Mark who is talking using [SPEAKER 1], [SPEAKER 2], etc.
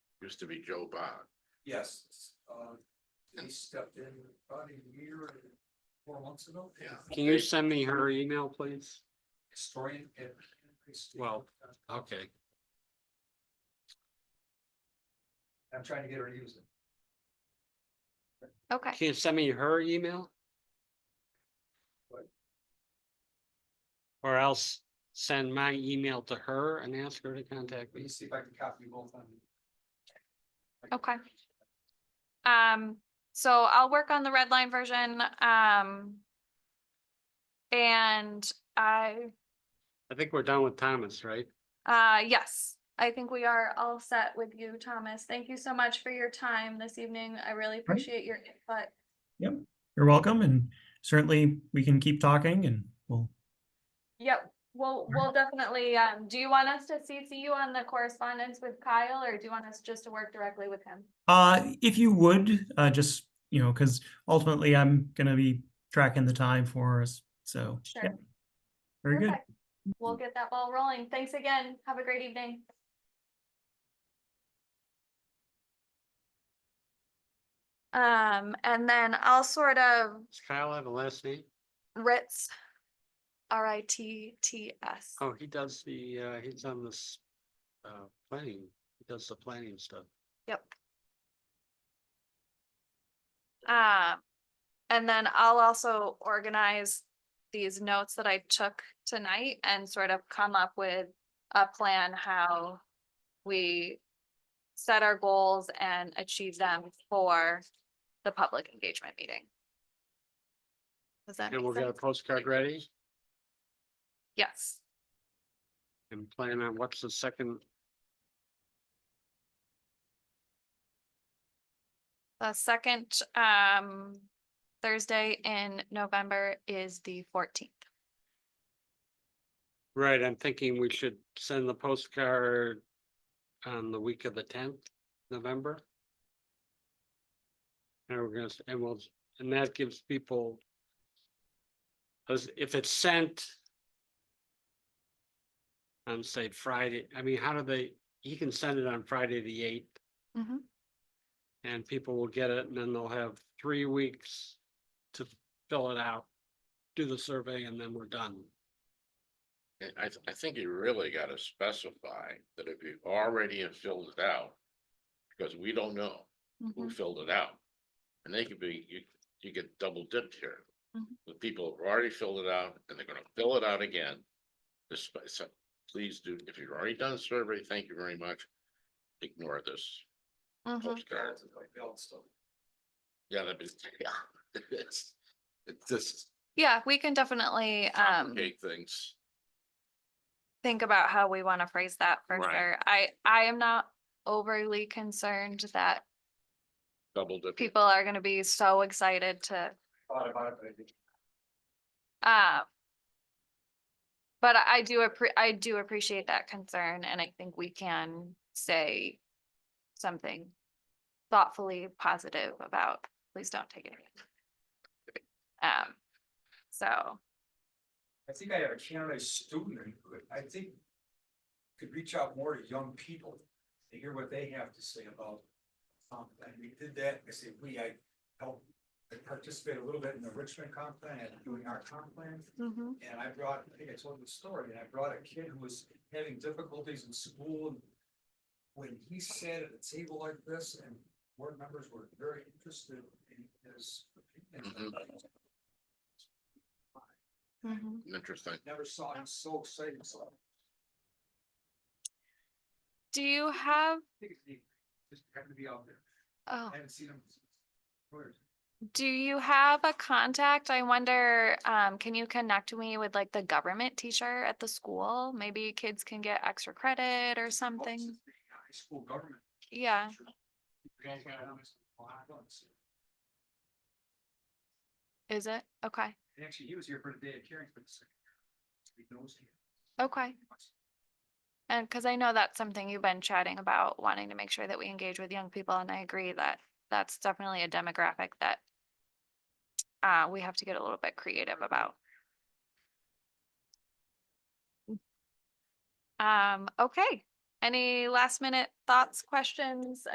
[SPEAKER 1] used to be Joe Bond.
[SPEAKER 2] Yes, uh, he
[SPEAKER 1] And-
[SPEAKER 2] stepped in about a year and four months ago.
[SPEAKER 1] Yeah.
[SPEAKER 3] Can you send me her email, please?
[SPEAKER 2] Historian at.
[SPEAKER 3] Well, Okay,
[SPEAKER 2] I'm trying to get her to use it.
[SPEAKER 4] Okay,
[SPEAKER 3] can you send me her email?
[SPEAKER 2] What?
[SPEAKER 3] Or else send my email to her and ask her to contact
[SPEAKER 2] Let
[SPEAKER 3] me.
[SPEAKER 2] me see if I can copy both on.
[SPEAKER 4] Okay. um, so I'll work on the red line version, um. And I,
[SPEAKER 3] I think we're done with Thomas, right?
[SPEAKER 4] uh, yes, I think we are all set with you, Thomas. Thank you so much for your time this evening. I really appreciate your input.
[SPEAKER 5] You're welcome, and certainly we can keep talking and we'll,
[SPEAKER 4] Yep, well, we'll definitely, um, do you want us to CC you on the correspondence with Kyle or do you want us just to work directly with him?
[SPEAKER 5] uh, if you would, uh, just, you know, because ultimately I'm gonna be tracking the time for us, so.
[SPEAKER 4] Sure.
[SPEAKER 5] yeah. Very good.
[SPEAKER 4] Perfect. We'll get that ball rolling. Thanks again. Have a great evening. Um, and then I'll sort of
[SPEAKER 3] Does Kyle have a last name?
[SPEAKER 4] Ritz, R I T T S.
[SPEAKER 3] Oh, he does the, uh, he's on this, uh, planning, he does the planning stuff.
[SPEAKER 4] Yep. Um, and then I'll also organize these notes that I took tonight and sort of come up with a plan how we set our goals and achieve them for the public engagement meeting. Does that
[SPEAKER 3] And we'll
[SPEAKER 4] make
[SPEAKER 3] get a
[SPEAKER 4] sense?
[SPEAKER 3] postcard ready
[SPEAKER 4] Yes,
[SPEAKER 3] and plan on what's the second,
[SPEAKER 4] the second, um, Thursday in November is the fourteenth.
[SPEAKER 3] right, I'm thinking we should send the postcard on the week of the tenth, November. And we're gonna, s- and we'll, and that gives people. Cause if it's sent. On say Friday, I mean, how do they, he can send it on Friday, the eighth.
[SPEAKER 4] Mm-hmm.
[SPEAKER 3] And people will get it and then they'll have three weeks to fill it out. Do the survey and then we're done.
[SPEAKER 1] And I, th- I think you really gotta specify that if you already have filled it out, because we don't know
[SPEAKER 4] mm-hmm,
[SPEAKER 1] who filled it out. And they could be, you, you get double dipped here.
[SPEAKER 4] Mhm.
[SPEAKER 1] The people have already filled it out and they're gonna fill it out again. This, so please do, if you've already done a survey, thank you very much. Ignore this
[SPEAKER 4] Mm-hmm.
[SPEAKER 1] postcard. Yeah, that'd be, yeah. It's, it's just
[SPEAKER 4] Yeah, we can definitely um
[SPEAKER 1] complicate things.
[SPEAKER 4] think about how we want to phrase that for
[SPEAKER 1] Right.
[SPEAKER 4] sure. I I am not overly concerned that
[SPEAKER 1] Double dip.
[SPEAKER 4] people are gonna be so excited to
[SPEAKER 2] Thought about it, but I didn't.
[SPEAKER 4] uh but I I do appre- I do appreciate that concern and I think we can say something thoughtfully positive about, please don't take it. Um, so,
[SPEAKER 2] I think I have a Canada student, who I think could reach out more to young people to hear what they have to say about. Um, and we did that, I say, we, I helped I participate a little bit in the Richmond comp plan and doing our comp plan.
[SPEAKER 4] mhm,
[SPEAKER 2] And I brought, I think I told you the story, and I brought a kid who was having difficulties in school. and When he sat at a table like this and board members were very interested in his. opinion.
[SPEAKER 4] mhm.
[SPEAKER 1] Interesting.
[SPEAKER 2] Never saw him so excited, so. I
[SPEAKER 4] Do you have,
[SPEAKER 2] think it's neat. Just happened to be out there.
[SPEAKER 4] oh.
[SPEAKER 2] I haven't seen him. Where?
[SPEAKER 4] Do you have a contact? I wonder, um, can you connect me with like the government teacher at the school? Maybe kids can get extra credit or
[SPEAKER 2] Oh, it's
[SPEAKER 4] something.
[SPEAKER 2] just the High school government.
[SPEAKER 4] Yeah,
[SPEAKER 2] teacher. Yeah, yeah, I don't- I don't see him.
[SPEAKER 4] is it? Okay,
[SPEAKER 2] And actually, he was here for the day of hearing for the second. year. He knows him.
[SPEAKER 4] okay. And because I know that's something you've been chatting about, wanting to make sure that we engage with young people, and I agree that that's definitely a demographic that uh, we have to get a little bit creative about. Um, okay, any last minute thoughts, questions,